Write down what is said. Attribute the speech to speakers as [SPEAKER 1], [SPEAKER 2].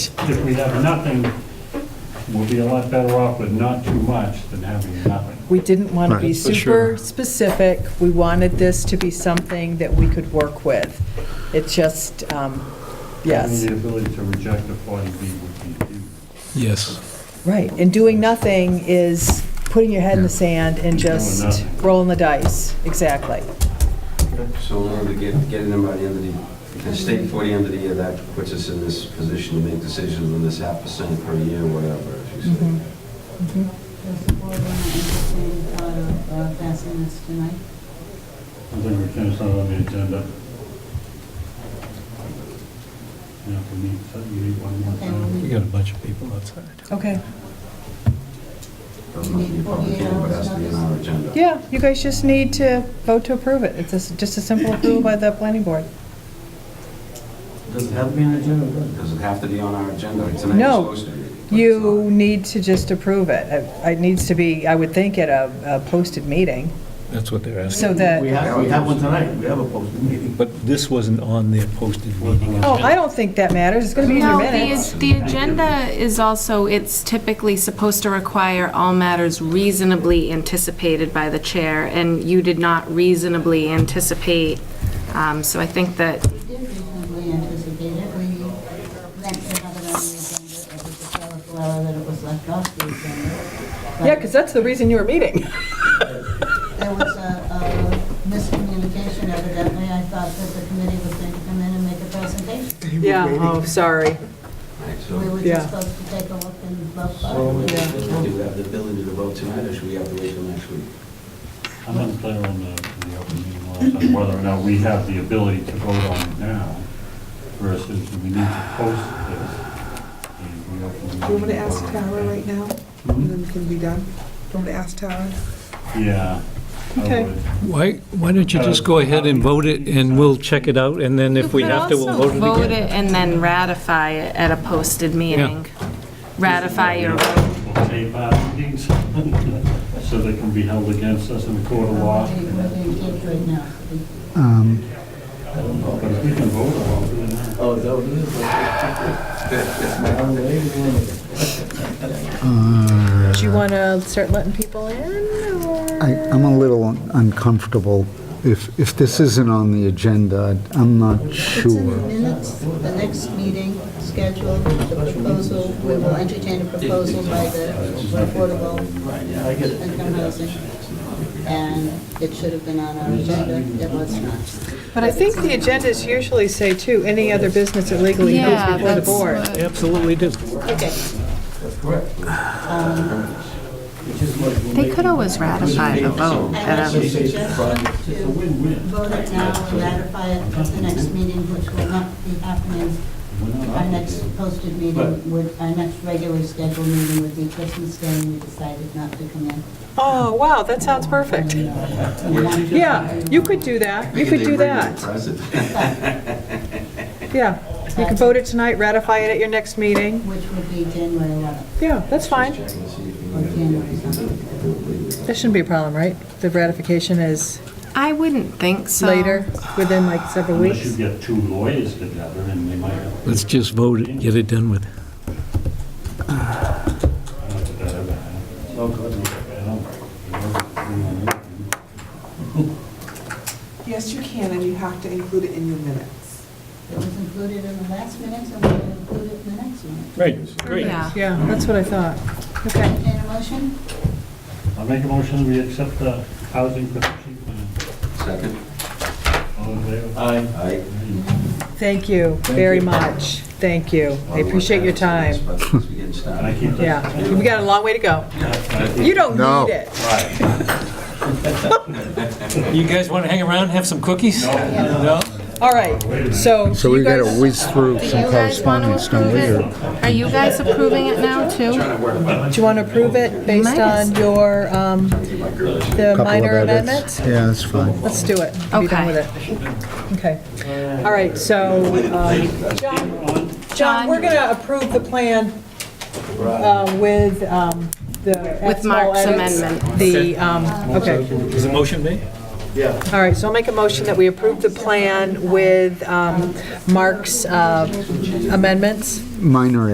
[SPEAKER 1] If we have nothing, we'll be a lot better off with not too much than having nothing.
[SPEAKER 2] We didn't want to be
[SPEAKER 3] Right,
[SPEAKER 4] for sure.
[SPEAKER 2] super specific. We wanted this to be something that we could work with. It just, um, yes,
[SPEAKER 1] The ability to reject a 40B would be huge.
[SPEAKER 4] Yes.
[SPEAKER 2] right. And doing nothing is putting your head in the sand and just
[SPEAKER 1] nothing.
[SPEAKER 2] rolling the dice. Exactly.
[SPEAKER 5] So in order to get, get in by the end of the, if it's state before the end of the year, that puts us in this position to make decisions on this half percent per year, whatever, as you
[SPEAKER 2] Mhm.
[SPEAKER 5] say.
[SPEAKER 6] Does the board want to entertain the thought of uh, passing this
[SPEAKER 1] I
[SPEAKER 6] tonight?
[SPEAKER 1] think we can, it's not on the agenda. Yeah, we need, so you need one more
[SPEAKER 6] And
[SPEAKER 1] thing.
[SPEAKER 6] we
[SPEAKER 4] We got a bunch of people outside.
[SPEAKER 2] Okay.
[SPEAKER 5] Doesn't have to be a public hearing, but has to be on our agenda.
[SPEAKER 2] Yeah, you guys just need to vote to approve it. It's just- just a simple approval by the planning board.
[SPEAKER 5] Does it have to be on our agenda? Does it have to be on our agenda? Tonight it's
[SPEAKER 2] No.
[SPEAKER 5] supposed to be, but it's
[SPEAKER 2] You
[SPEAKER 5] not.
[SPEAKER 2] need to just approve it. It- It needs to be, I would think, at a a posted meeting,
[SPEAKER 4] That's what they're asking.
[SPEAKER 2] so that...
[SPEAKER 7] We have, we have one tonight, we have a posted meeting.
[SPEAKER 4] But this wasn't on their posted meeting.
[SPEAKER 2] Oh, I don't think that matters, it's gonna be in your
[SPEAKER 8] No, the,
[SPEAKER 2] minutes.
[SPEAKER 8] the agenda is also, it's typically supposed to require all matters reasonably anticipated by the chair, and you did not reasonably anticipate, um, so I think that,
[SPEAKER 6] We did reasonably anticipate it, we meant to have it on the agenda, it was a fellow flower that it was left off the agenda. but
[SPEAKER 2] Yeah, because that's the reason you were meeting.
[SPEAKER 6] There was a a miscommunication evidently, I thought that the committee was going to come in and make a presentation.
[SPEAKER 2] Yeah, oh, sorry.
[SPEAKER 5] Right,
[SPEAKER 6] We
[SPEAKER 5] so
[SPEAKER 6] were
[SPEAKER 2] Yeah.
[SPEAKER 6] just supposed to take a look and vote.
[SPEAKER 5] so
[SPEAKER 6] on
[SPEAKER 5] we-
[SPEAKER 6] it.
[SPEAKER 2] Yeah.
[SPEAKER 5] do we have the ability to vote tonight, or should we have to wait till next week?
[SPEAKER 1] I'm unclear on the, the open meeting laws, on whether or not we have the ability to vote on it now versus we need to post this. and we open the
[SPEAKER 9] Do you want me to
[SPEAKER 1] meeting
[SPEAKER 9] ask
[SPEAKER 1] law.
[SPEAKER 9] Tara right now, and then we can be done? Do you want me to ask Tara?
[SPEAKER 1] Yeah. I
[SPEAKER 2] Okay.
[SPEAKER 1] would.
[SPEAKER 4] Why, why don't you just go ahead and vote it, and we'll check it out, and then if we have to, we'll vote
[SPEAKER 8] You could also
[SPEAKER 4] it
[SPEAKER 8] vote
[SPEAKER 4] again?
[SPEAKER 8] it and then ratify it at a posted meeting. Ratify your vote.
[SPEAKER 1] We'll tape our meetings So they can be held against us in the court of law.
[SPEAKER 6] We're going to get right now.
[SPEAKER 10] Um,
[SPEAKER 1] But if we can vote, I'll do it uh, now.
[SPEAKER 7] Oh, is that what it is?
[SPEAKER 2] Do
[SPEAKER 1] Uh.
[SPEAKER 2] you want to start letting people in, or?
[SPEAKER 10] I- I'm a little uncomfortable. If, if this isn't on the agenda, I'm not
[SPEAKER 6] It's in the
[SPEAKER 10] sure.
[SPEAKER 6] minutes, the next meeting scheduled, the proposal, we will entertain a proposal by the affordable income housing. And it should have been on our agenda, it was not.
[SPEAKER 2] But I think the agendas usually say, too, any other business that legally goes
[SPEAKER 8] Yeah,
[SPEAKER 2] before the
[SPEAKER 8] that's
[SPEAKER 2] board.
[SPEAKER 8] what-
[SPEAKER 4] Absolutely do.
[SPEAKER 6] Okay. Um,
[SPEAKER 8] They could always ratify the vote
[SPEAKER 6] I
[SPEAKER 8] at
[SPEAKER 6] actually
[SPEAKER 8] a,
[SPEAKER 6] suggest you to vote it now and ratify it at the next meeting, which will not be happening. Our next posted meeting would, our next regularly scheduled meeting would be Christmas Day, and we decided not to come in.
[SPEAKER 2] Oh, wow, that sounds perfect. Yeah, you could do that, you could do that, yeah. You could vote it tonight, ratify it at your next meeting,
[SPEAKER 6] Which would be January 11th.
[SPEAKER 2] yeah, that's fine.
[SPEAKER 6] or January something.
[SPEAKER 2] That shouldn't be a problem, right? The ratification is
[SPEAKER 8] I wouldn't think so.
[SPEAKER 2] later, within like several
[SPEAKER 1] Unless you
[SPEAKER 2] weeks.
[SPEAKER 1] get two lawyers together and they might have.
[SPEAKER 4] Let's just vote it, get it done with.
[SPEAKER 1] I don't know if that ever happened. I don't know.
[SPEAKER 9] Yes, you can, and you have to include it in your minutes.
[SPEAKER 6] It was included in the last minutes, and we'll include it in the next one.
[SPEAKER 4] Right,
[SPEAKER 8] Yeah.
[SPEAKER 2] Yeah, that's what I thought. Okay.
[SPEAKER 6] Entertain a motion?
[SPEAKER 1] I'll make a motion, we accept the housing protection plan.
[SPEAKER 5] Second?
[SPEAKER 1] All in favor?
[SPEAKER 5] Aye.
[SPEAKER 2] Thank you very much. Thank you. I appreciate your time.
[SPEAKER 5] Since we're getting started.
[SPEAKER 1] Can I keep this?
[SPEAKER 2] Yeah, we got a long way to go. You don't
[SPEAKER 10] No.
[SPEAKER 2] need it.
[SPEAKER 4] You guys want to hang around, have some cookies? No.
[SPEAKER 2] All right, so
[SPEAKER 10] So
[SPEAKER 2] you
[SPEAKER 10] we gotta
[SPEAKER 2] guys-
[SPEAKER 10] whiz through
[SPEAKER 8] Do
[SPEAKER 10] some
[SPEAKER 8] you guys want to
[SPEAKER 10] correspondence, don't
[SPEAKER 8] approve
[SPEAKER 10] we?
[SPEAKER 8] it?
[SPEAKER 10] or-
[SPEAKER 8] Are you guys approving it now, too?
[SPEAKER 2] do you want to approve it based
[SPEAKER 8] Might as-
[SPEAKER 2] on your, um, the
[SPEAKER 10] Couple of
[SPEAKER 2] minor
[SPEAKER 10] edits.
[SPEAKER 2] amendments?
[SPEAKER 10] Yeah, that's fine.
[SPEAKER 2] Let's do it. Be done
[SPEAKER 8] Okay.
[SPEAKER 2] with it. Okay. All right, so, um, John, John, we're going to approve the plan uh, with um, the.
[SPEAKER 8] With
[SPEAKER 2] small
[SPEAKER 8] Mark's
[SPEAKER 2] edits.
[SPEAKER 8] amendment.
[SPEAKER 2] The, um, okay.
[SPEAKER 4] Is the motion made?
[SPEAKER 2] All right, so I'll make a motion that we approve the plan with um, Mark's uh, amendments.
[SPEAKER 10] Minor